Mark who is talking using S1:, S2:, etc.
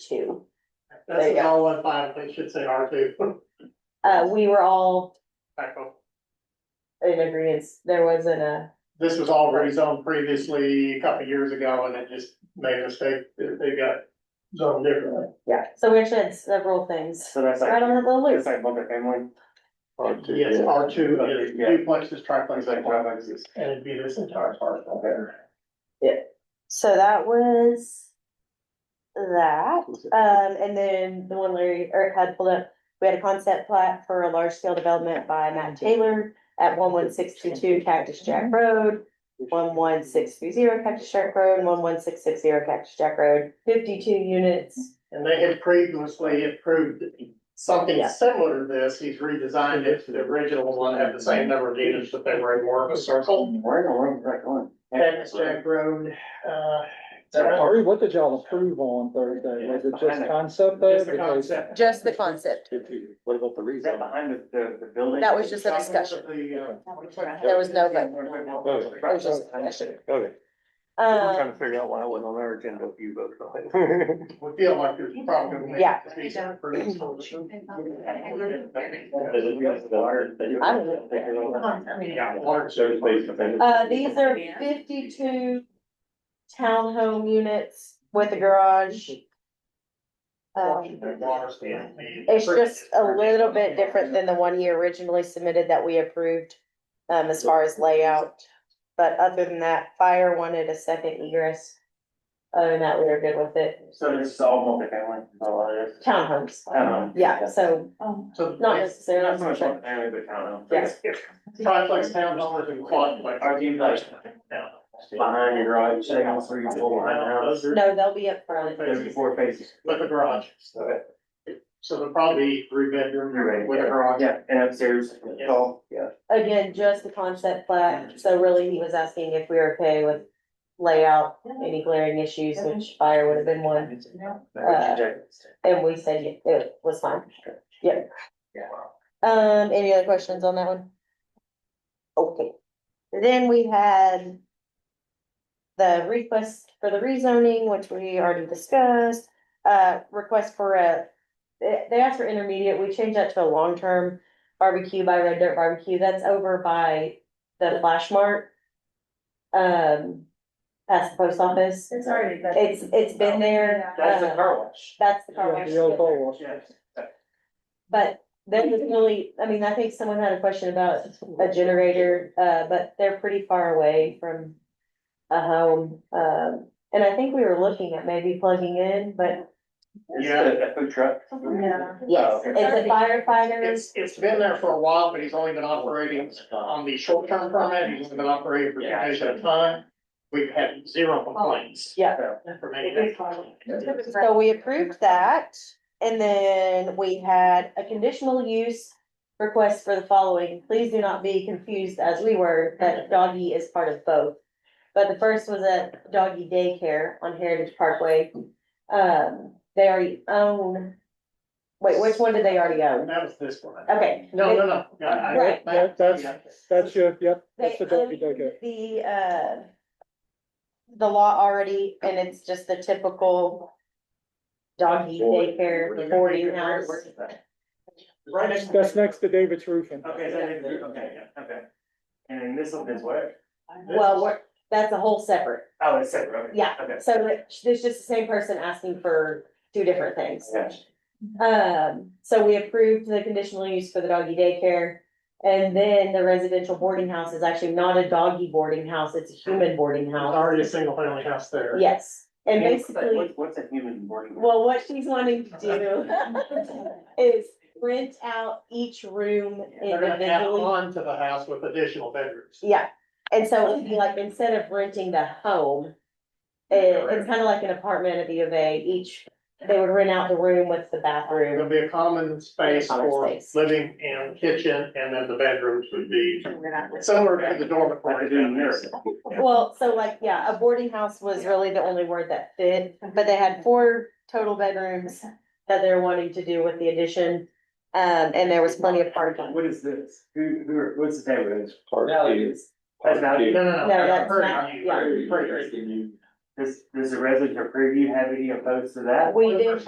S1: two.
S2: That's
S1: There you
S2: an L one five, they should say R two,
S1: Uh, we were all
S2: typo.
S1: in agreement, there wasn't a,
S2: This was all rezoned previously a couple of years ago and it just made a mistake, they they got zoned differently.
S1: yeah, so we actually had several things
S3: So that's
S1: right
S3: like,
S1: on the
S3: it's
S1: loop.
S3: like multifamily,
S2: Yes, R two uh, is
S3: Yeah.
S2: duplexes,
S3: it's like
S2: triplexes,
S3: duplexes.
S2: and it'd be this entire parcel there.
S1: So that was that. Um, and then the one Larry Eric had pulled up, we had a concept plat for a large scale development by Matt Taylor at one one six two two Cactus Jack Road, one one six three zero Cactus Jack Road, one one six six zero Cactus Jack Road, fifty-two units.
S2: And they had previously approved something
S1: Yeah.
S2: similar to this, he's redesigned it to the original one, have the same number of units, but they were in more of a circle.
S3: Oh, Where the world is that going?
S2: Cactus Jack Road, uh.
S4: Ari, what did y'all approve on Thursday? Was it just concept though?
S2: Just the
S4: Because-
S2: concept.
S1: Just the concept.
S5: What about the
S3: Is that behind the, the, the building?
S1: That was just a discussion.
S3: uh,
S1: There was no vote. was
S3: It
S4: Oh.
S1: just a discussion.
S5: Okay, I'm trying to
S1: Um,
S5: figure out why I wasn't on our agenda if you voted on it.
S2: We feel like there's probably.
S1: Yeah.
S2: Yeah, water service.
S1: uh, these are fifty-two townhome units with a garage. Um,
S2: Water stand. the-
S1: It's just a little bit different than the one he originally submitted that we approved, um, as far as layout. But other than that, fire wanted a second egress. Other than that, we were good with it.
S3: So this is all multifamily, a lot of this.
S1: Townhomes,
S3: Townhome.
S1: yeah, so
S3: Um,
S2: So
S1: not
S2: it's
S3: Not
S1: necessarily.
S3: so much multifamily, but townhome.
S1: Yes.
S2: triplex townhomes and quadplex.
S3: Are you like behind your garage, say, on three, four, behind the house?
S1: No, they'll be up front.
S3: There's four faces.
S2: With a garage,
S3: So,
S2: so they're probably three
S3: you're
S2: bedroom
S3: right.
S2: with a garage.
S3: Yeah, and upstairs, so, yeah.
S1: Again, just the concept plat, so really he was asking if we were okay with layout, any glaring issues, which fire would have been one. And we said it- it was fine. Yep. Um, any other questions on that one? Okay, then we had. The request for the rezoning, which we already discussed, uh, request for a. They, they asked for intermediate, we changed that to a long-term barbecue by Red Dirt Barbecue, that's over by the Flash Mart. Um, past the post office,
S6: It's already been.
S1: it's, it's been there.
S3: That's the
S1: uh,
S3: car wash.
S1: That's the car
S4: Yeah,
S1: wash.
S4: The old car wash.
S3: Yes.
S1: But they're just really, I mean, I think someone had a question about a generator, uh, but they're pretty far away from a home. Um, and I think we were looking at maybe plugging in, but
S2: Yeah.
S3: Yeah, a food truck.
S6: Yeah.
S1: yes, it's a firefighter.
S2: It's, it's been there for a while, but he's only been operating uh, on the short-term permit, he's been operating for two days at a time. We've had zero complaints.
S1: Oh, Yeah.
S2: From anything.
S1: So we approved that. And then we had a conditional use request for the following. Please do not be confused as we were that doggy is part of both. But the first was a doggy daycare on Heritage Parkway. Um, they already own. Wait, which one did they already own?
S2: That was this one.
S1: Okay.
S2: No, no, no. Yeah, I-
S1: Right.
S2: I-
S4: That's-
S2: yeah.
S4: That's your, yep,
S1: They um,
S4: that's the
S1: own
S4: Dunkin' Donuts.
S1: the, uh. The law already, and it's just the typical. Doggy daycare, boarding house.
S2: Right next.
S4: That's next to David's Roofing.
S3: Okay, so, they- okay, yeah, okay. And then this one is what?
S1: Well, we're, that's a whole separate.
S3: Oh, it's separate, okay.
S1: Yeah.
S3: Okay.
S1: So it's just the same person asking for two different things.
S3: Gotcha.
S1: Um, so we approved the conditional use for the doggy daycare. And then the residential boarding house is actually not a doggy boarding house, it's a human boarding
S2: There's
S1: house.
S2: already a single family house there.
S1: Yes, and
S3: Yeah, what's that-
S1: basically,
S3: what's- What's a human boarding? house?
S1: well, what she's wanting to do is rent out each room
S2: They're gonna add
S1: individually.
S2: on to the house with additional bedrooms.
S1: Yeah, and so it'd be like, instead of renting the home, it, it's kind of like an apartment at the U of A, each, they would rent out the room with the
S2: There'll
S1: bathroom.
S2: be a common space
S1: Common
S2: for
S1: space.
S2: living and kitchen, and then the bedrooms would be similar to the
S3: Like
S2: dormitory.
S3: they're doing there.
S1: Well, so like, yeah, a boarding house was really the only word that fit, but they had four total bedrooms that they're wanting to do with the addition. Um, and there was plenty of parking.
S3: What is this? Who, who, are- what's the name of this?
S5: Values.
S3: That's
S2: No,
S3: value.
S2: no,
S1: No,
S2: no.
S1: that's
S2: Hurry,
S1: not-
S2: hurry,
S1: yeah.
S2: hurry, hurry.
S3: Does, does the resident or preview have any opposed to that?
S1: We did